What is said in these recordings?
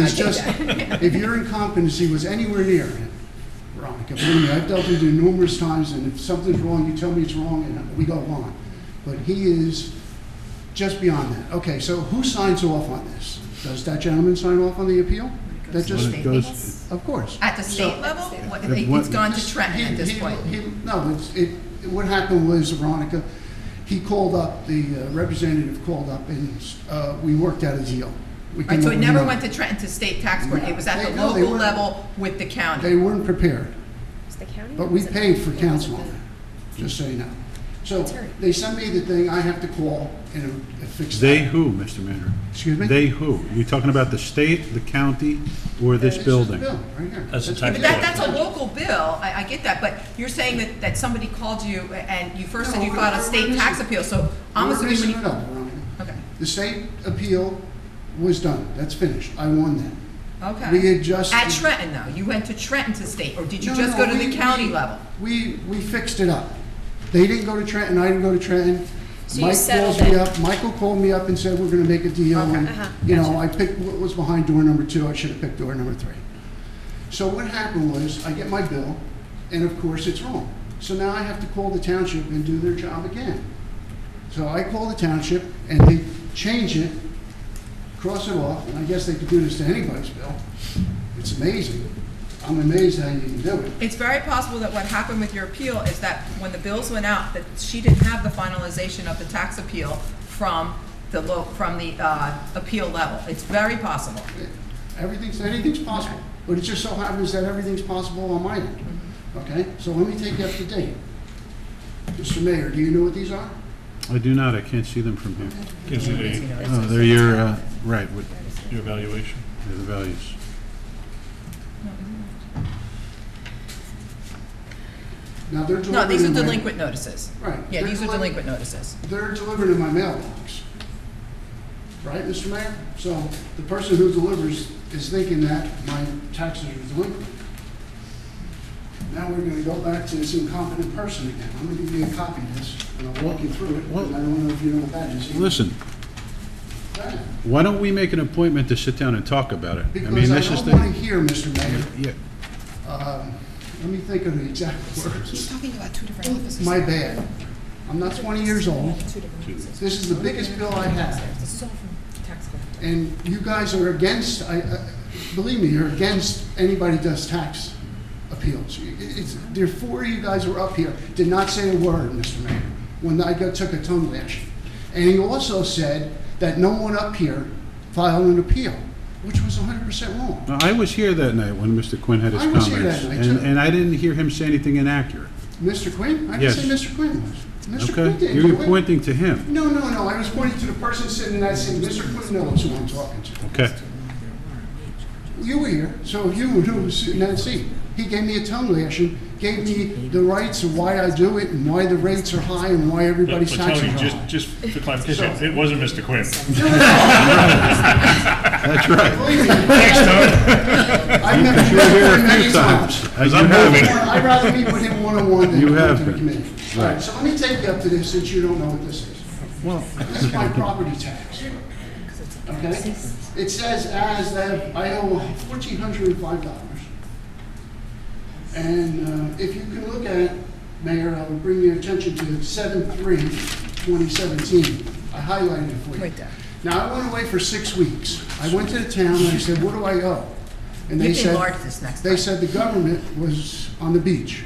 It's just, if your incompetency was anywhere near, Veronica, believe me, I've dealt with you numerous times, and if something's wrong, you tell me it's wrong, and we go on. But he is just beyond that. Okay, so who signs off on this? Does that gentleman sign off on the appeal? That Well, just, it goes, of course. At the state So- level, What- At it's what- gone to Trenton at He- this he- point. he- No, it's, it, what happened was, Veronica, he called up, the uh, representative called up, and, uh, we worked out a deal. We Right, came so up it with never another- went to Trenton to state tax court, it was at They- the no, they local weren't. level with the They county. weren't prepared. It's the county. But or we is it- paid for or is it council the- on it, just so you know. So Terry. they send me the thing, I have to call and uh, fix that. they who, Mr. Mayor? Excuse me? They who? You talking about the state, the county, or this It's just a building? bill, right here. That's the But tax that, that's a local bill, I, I get that, but you're saying that, that somebody called you and you first said you No, filed we're- a we're state tax missing- appeal, so I'm We're assuming when messing it you. up, Veronica. Okay, The state appeal was done, that's finished, I won that. We okay. adjusted. At Trenton though, you went to Trenton to state, or did you No, just no, go to the we- county we- level? We, we fixed it up. They didn't go to Trenton, I didn't go to Trenton. So you Mike settled calls me it. up, Michael called me up and said, we're gonna make a deal. Okay. and, Uh-huh. You know, I picked what was behind door number two, I should have picked door number three. So what happened was, I get my bill, and of course, it's wrong. So now I have to call the township and do their job again. So I call the township, and they change it, cross it off, and I guess they could do this to anybody's bill. It's amazing. I'm amazed how you can do it. It's very possible that what happened with your appeal is that when the bills went out, that she didn't have the finalization of the tax appeal from the lo, from the, uh, appeal level. It's very possible. Everything's, anything's possible, but it just so happens that everything's possible on my end, okay? So let me take you up to date. Mr. Mayor, do you know what these are? I do not, I can't see them from here. Gives you the Oh, they're your, uh, right, what, your evaluation. they're the values. Now, they're delivered No, these are in my- delinquent notices. Right. Yeah, They're these are deli- delinquent notices. They're delivered in my mailbox, right, Mr. Mayor? So the person who delivers is thinking that my taxes are delinquent. Now we're gonna go back to this incompetent person again. I'm gonna give you a copy of this, and I'll walk you through it, Well- and I don't know if you know what that is. Listen, That- why don't we make an appointment to sit down and talk about it? I mean, Because I this is don't the. want to hear, Mr. Mayor, Yeah, um, let me think of the exact words. He's talking about two different offices. My bad. I'm not 20 years old. Two different offices. This is the biggest bill I have. This is all from tax collector. And you guys are against, I, I- believe me, you're against anybody does tax appeals. You- it- It's, there four of you guys were up here, did not say a word, Mr. Mayor, when I got, took a tongue lashing. And he also said that no one up here filed an appeal, which was 100% wrong. Now, I was here that night when Mr. Quinn had his I was comments. here that night, and- too. And I didn't hear him say anything inaccurate, Mr. Quinn? I didn't say Yes. Mr. Quinn was. Mr. Quinn okay? didn't. You do were it. pointing to him, No, no, no, I was pointing to the person sitting in that seat, Mr. Quinn knows who I'm talking to. okay? You were here, so you knew who was sitting in that seat. He gave me a tongue lashing, gave me the rights of why I do it, and why the rates are high, and why But everybody's taxes are Tony, high. just, just for clarification, So- it wasn't Mr. Quinn. That's right. Believe me, Thanks, Tony. I've never You were met here him a many few times. times. As I'm moving. I'd rather meet with him one-on-one than You go have to the been. committee. All right, so let me take you up to this, since you don't know what this is. Well, This is my property tax. Okay? It says as that I owe fourteen hundred and five dollars. And uh, if you can look at, Mayor, I would bring your attention to seven three, twenty seventeen. I highlighted it for you. Right there. Now, I went away for six weeks. I went to the town and I said, what do I owe? And You they can said, enlarge this next they time. said the government was on the beach,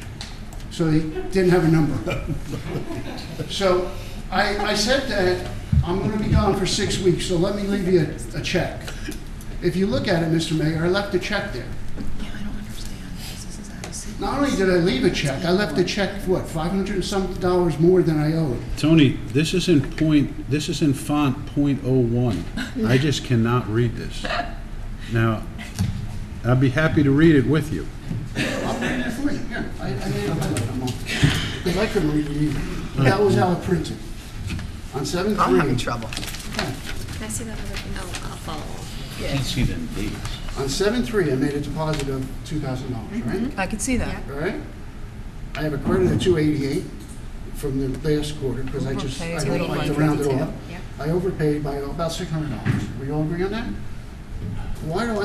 so they didn't have a number. So I, I said that I'm going to be gone for six weeks, so let me leave you a, a check. If you look at it, Mr. Mayor, I left a check there. Yeah, I don't understand, because this is out of sequence. Not only did I leave a check, I left a check, what, 500 and some dollars more than I owed. Tony, this is in point, this is in font point oh one. I just cannot read this. Now, I'd be happy to read it with you. I'll read it for you. Here, I, I made a highlight on mine. Because I couldn't read it either. That was how it printed. On 7 I'm having trouble. Can I see that other thing? Oh, I'll, I'll follow. Can't see them dates. On seven three, I made a deposit of two thousand dollars, right? I can see that. All right? I have a credit of two eighty-eight from the last quarter, because I just, I Overpaid. don't like to round it off. Yeah. I overpaid by about six hundred dollars. We all agree on that? Why do I